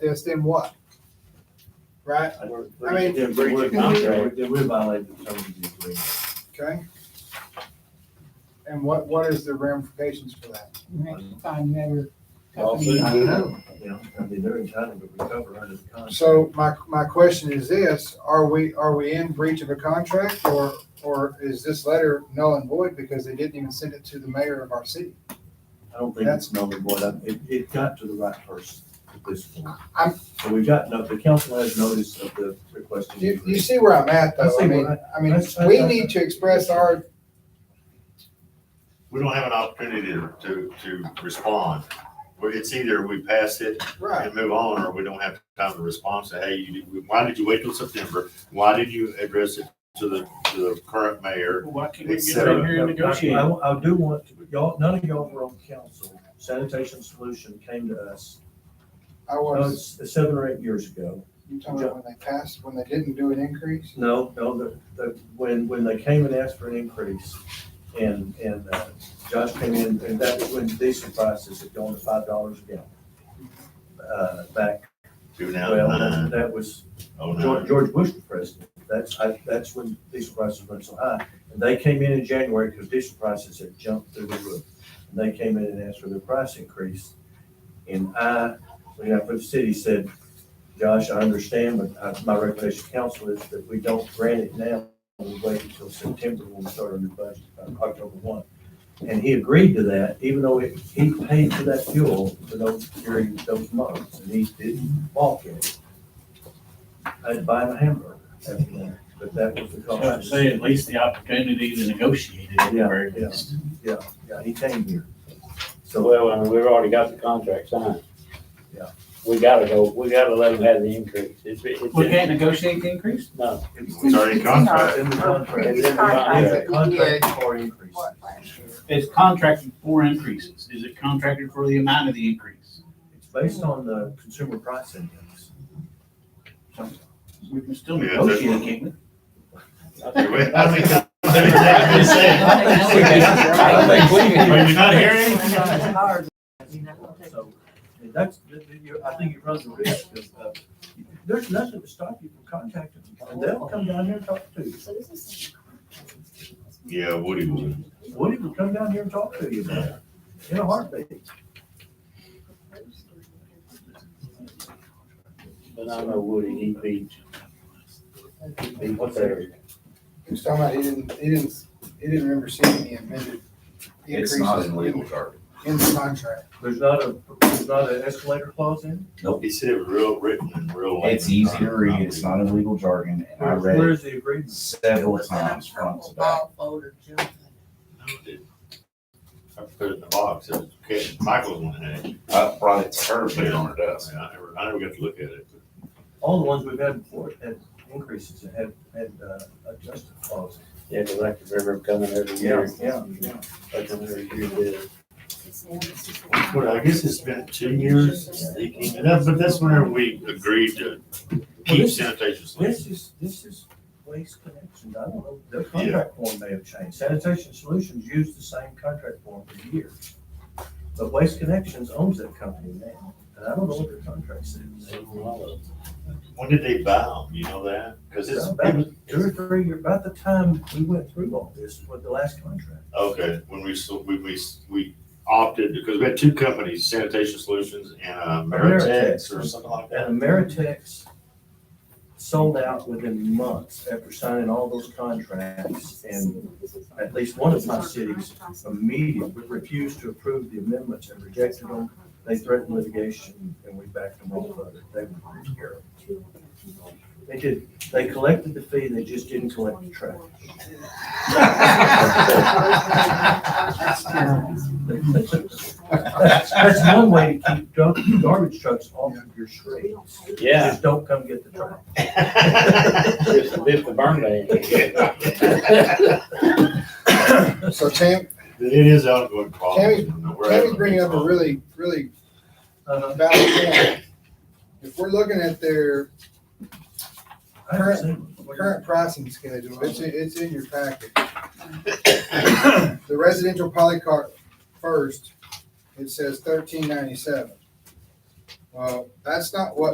this, then what? Right? I mean, I mean- Then breach of contract, then we violated the terms of the agreement. Okay? And what, what is the ramifications for that? Next time, never. Lawsuit, company. you know, you know, I mean, they're entitled to recover under the contract. So my, my question is this, are we, are we in breach of a contract or, or is this letter null and void because they didn't even send it to the mayor of our city? I don't think that's null and void. I- It, it got to the right person at this point. I'm- So we've got, no, the council has notice of the request. You, you see where I'm at I though, see I mean, what I mean, I- I- we I- need to express our, We don't have an opportunity to, to, to respond. Well, It's either we pass it right, and move on, or we don't have time to respond, say, hey, you, why did you wait till September? Why did you address it to the, to the current mayor? Why can't we we get get down out here and negotiate? I, I do want, to- y'all, none of y'all were on council. Sanitation Solution came to us, I uh, was, s- seven or eight years ago. you told me when they passed, when they didn't do an increase? No, no, the, the, when, when they came and asked for an increase, and, and uh, Josh came in, and that was when diesel prices had gone to five dollars a gallon. Uh, back, Two now, uh, well, that- nine, that was oh, George, nine. George Bush was president. That's, I, that's when diesel prices went so high. And they came in in January because diesel prices had jumped through the roof. And they came in and asked for their price increase. And I, when I put the city, said, Josh, I understand, but I- my recommendation to council is that we don't grant it now. We wait until September when we start our new budget, uh, October one. And he agreed to that, even though it- he paid for that fuel for those, during those months. And he didn't balk at it. I'd buy him a hamburger after that, but that was the That's what I'm cost. saying, at least the opportunity to negotiate it at the Yeah, very yeah. least. Yeah, yeah, he came here. So, Well, I mean, we've already got the contract signed. Yeah. We gotta go, we gotta let them have the increase. It's, it's, We in- can't negotiate the increase? no, It's already in contract. it's in the contract. It's in the Yeah, contract. contract for increase. It's contracted for increases. Is it contracted for the amount of the increase? It's based on the consumer price index. We can still Yeah, that's- negotiate, can't we? I mean, that's exactly the same. Are you not hearing? So, I mean, that's, that- that you- I think it runs the risk of, uh, there's nothing to stop you from contacting them. And they'll come down here and talk to you. Yeah, Woody would. Woody will come down here and talk to you about it in a heartbeat. but I know Woody, he beat, beat what's there. He was talking about he didn't, he didn't, he didn't remember seeing the amended It's not increases in legal jargon. in the contract. There's not a, there's not an escalator clause in? He said it was real written and real. It's easy to read. It's not in legal jargon, and I Where- read it Where's the agreement? several times front to back. I put it in the box. It was- okay, Michael's one had it. I brought it to her, put it on her desk. I never, I never got to look at it. All the ones we've had before had increases and had, had uh, adjusted clauses. Yeah, the electric river coming every year. yeah. Like them every year, did. Well, I guess it's been two years since they came, and that's, but that's whenever we agreed to keep sanitation. This is, this is Waste Connections, I don't know, their contract form may have changed. Sanitation Solutions used the same contract form for years. But Waste Connections owns that company now, and I don't know what their contract says. When did they bow? You know that? Because it's, it About was- two or three, years- about the time we went through all this with the last contract. okay, when we, so- we, we, we opted, because we had two companies, Sanitation Solutions and uh, Ameritex or something like that. And Ameritex sold out within months after signing all those contracts. And at least one of my cities immediately refused to approve the amendments and rejected them. They threatened litigation and we backed them off of it. They were terrible. They did, they collected the fee, they just didn't collect the trash. That's, that's one way to keep dump- garbage trucks off of your streets. Yeah, Just don't come get the trash. just lift the burn ban. So Tam, It is ongoing problem. We're having Tammy's bringing up a problem. really, really Uh-huh. Uh, valid point. If we're looking at their I haven't seen one. current pricing schedule, it's, in- it's in your packet. The residential polycart first, it says thirteen ninety-seven. Well, that's not what